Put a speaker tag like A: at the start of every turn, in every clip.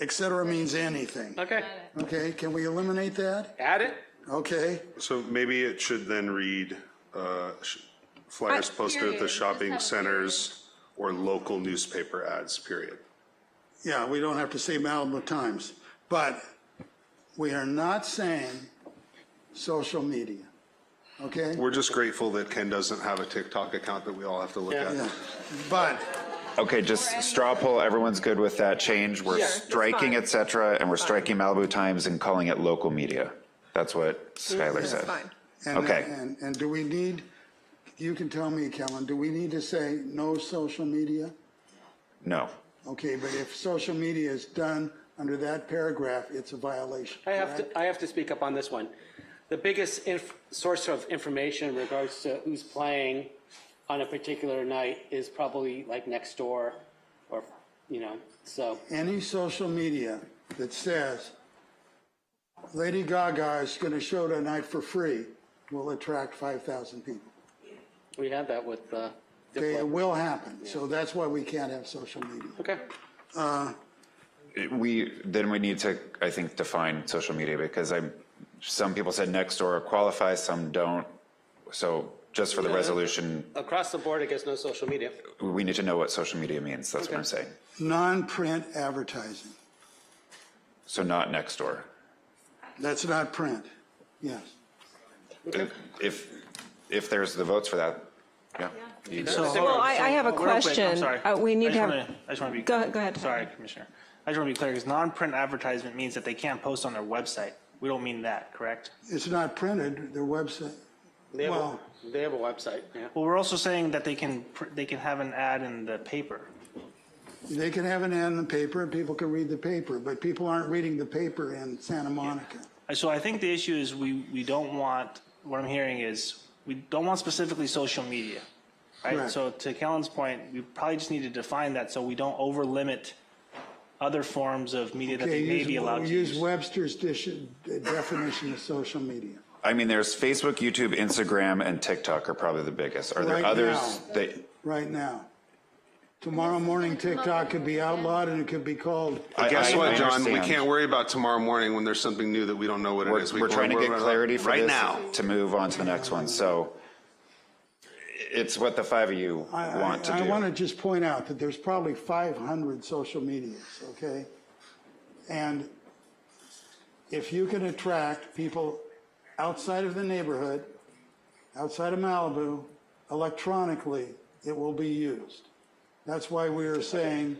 A: et cetera means anything.
B: Okay,
A: Okay, can we eliminate that?
B: add it.
A: Okay,
C: So maybe it should then read, uh, sh- flyers
D: Uh,
C: posted at
D: period.
C: the
D: Just have
C: shopping
D: a
C: centers or local newspaper ads, period.
A: yeah, we don't have to say Malibu Times, but we are not saying social media, okay?
C: We're just grateful that Ken doesn't have a TikTok account that we all have to look
B: Yeah.
C: at.
A: Yeah, But
E: Okay, just straw poll, everyone's good with that change, we're striking et cetera, and we're striking Malibu Times and calling it local media. That's what Skylar said.
A: And,
E: Okay.
A: and, and do we need, you can tell me, Kellen, do we need to say no social media?
E: No.
A: Okay, but if social media is done under that paragraph, it's a violation,
B: I have
A: correct?
B: to, I have to speak up on this one. The biggest inf- source of information in regards to who's playing on a particular night is probably like next door or, you know, so.
A: Any social media that says Lady Gaga is gonna show tonight for free will attract five thousand people.
B: We had that with, uh,
A: Okay, it
B: Diplo.
A: will happen, so that's why we can't have social media.
B: Okay,
E: We, then we need to, I think, define social media because I, some people said next door qualifies, some don't. So just for the resolution,
B: across the board, I guess no social media.
E: we need to know what social media means, that's what I'm
B: Okay.
E: saying.
A: Non-print advertising,
E: So not next door.
A: that's not print, yes.
E: If, if there's the votes for that, yeah. You-
F: Well, I, I have a
G: Oh, real quick, I'm
F: question.
G: sorry.
F: Uh, We
G: I
F: need to
G: just
F: have.
G: wanna- I just want to be.
F: Go ahead- go ahead.
G: Sorry, Commissioner. I just want to be clear, because non-print advertisement means that they can't post on their website. We don't mean that, correct?
A: It's not printed, their website,
B: They have, a-
A: Well-
B: they have a website, yeah.
G: Well, we're also saying that they can, pr- they can have an ad in the paper.
A: They can have an ad in the paper, and people can read the paper, but people aren't reading the paper in Santa Monica.
G: Uh, So I think the issue is we, we don't want, what I'm hearing is, we don't want specifically social media, right?
A: Right.
G: So to Kellen's point, we probably just need to define that so we don't over-limit other forms of media that
A: Okay,
G: they may
A: use-
G: be allowed to
A: Use
G: use.
A: Webster's dish- uh, definition of social media.
E: I mean, there's Facebook, YouTube, Instagram, and TikTok are probably the biggest. Are
A: Right
E: there others
A: now.
E: that,
A: right now. Tomorrow morning, TikTok could be outlawed and it could be called,
E: I-
C: Guess
E: I- I
C: what, John? We
E: understand.
C: can't worry about tomorrow morning when there's something new that we don't know what it
E: We're,
C: is. We
E: we're
C: can
E: trying to
C: worry
E: get
C: about it
E: clarity for
C: Right
E: this
C: now.
E: to move on to the next one. So it's what the five of you
A: I,
E: want to
A: I- I want to
E: do.
A: just point out that there's probably 500 social medias, okay? And if you can attract people outside of the neighborhood, outside of Malibu, electronically, it will be used. That's why we are saying,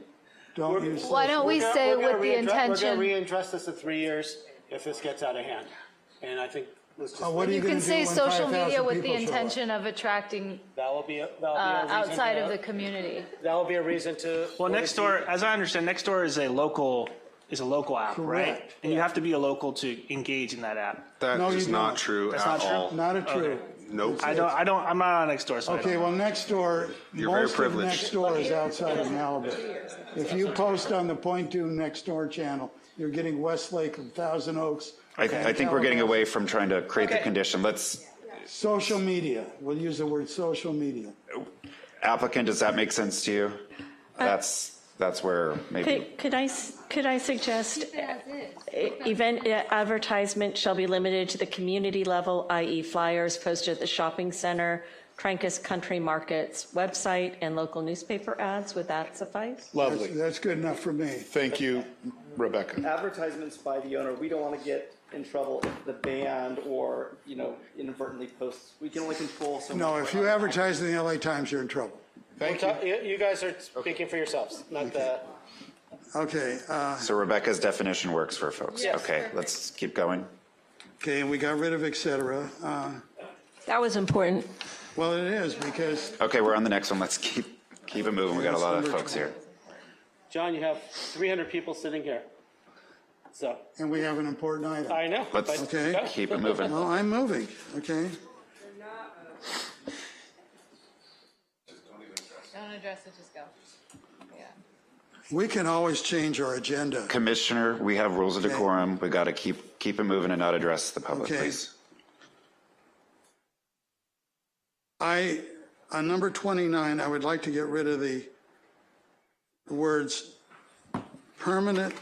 A: don't use.
D: Why don't we
B: We're gonna-
D: say
B: we're gonna
D: with the
B: readdre- We're
D: intention?
B: going to readdress this in three years if this gets out of hand. And I think, let's just,
A: Uh, What are you
D: You
A: going
D: can
A: to do when
D: say social
A: 5,000
D: media with the
A: people show up?
D: intention of attracting
B: that will be, a- that'll be a
D: uh,
B: reason.
D: outside
B: to-
D: of the community.
B: That will be a reason to.
G: Well, next door, as I understand, next door is a local, is a local app, right?
A: Correct.
G: And you have to be a local to engage in that app.
A: No,
C: That is
A: you
C: not
A: don't.
C: true
G: That's
C: at
G: not true?
C: all.
A: Not a true.
C: Nope.
G: I don't, I don't, I'm not on next door, so I
A: Okay,
G: don't.
A: well, next door,
C: You're very
A: most of
C: privileged.
A: next door is outside of Malibu. If you post on the Point Dune Next Door channel, you're getting Westlake and Thousand Oaks.
E: I, I think we're getting away from trying to create the condition. Let's,
A: Social media, we'll use the word social media.
E: applicant, does that make sense to you? That's, that's where maybe,
H: Could could I, s- could I suggest e- event advertisement shall be limited to the community level, i.e. flyers posted at the shopping center, Trancas Country Market's website, and local newspaper ads? Would that suffice?
A: That's-
I: Lovely.
A: That's good enough for me.
I: Thank you, Rebecca.
J: advertisements by the owner, we don't want to get in trouble if the band or, you know, inadvertently posts. We can only control so much.
A: No, if you advertise in the LA Times, you're in trouble.
I: Thank you.
B: Uh, You you guys are speaking for yourselves, not the.
A: Okay, uh,
E: so Rebecca's definition works for folks. Okay, let's keep going.
A: okay, and we got rid of et cetera. Uh,
F: That was important.
A: Well, it is because
E: Okay, we're on the next one. Let's keep, keep it moving. We got a lot of folks here.
B: John, you have 300 people sitting here. So,
A: and we have an important item.
B: I know.
E: Let's
B: but-
A: Okay.
E: keep it moving.
A: Well, I'm moving, okay?
D: Don't address it, just go.
A: We can always change our agenda.
E: Commissioner, we have rules of decorum. We got to keep, keep it moving and not address the public,
A: Okay.
E: please.
A: I, on number 29, I would like to get rid of the words permanent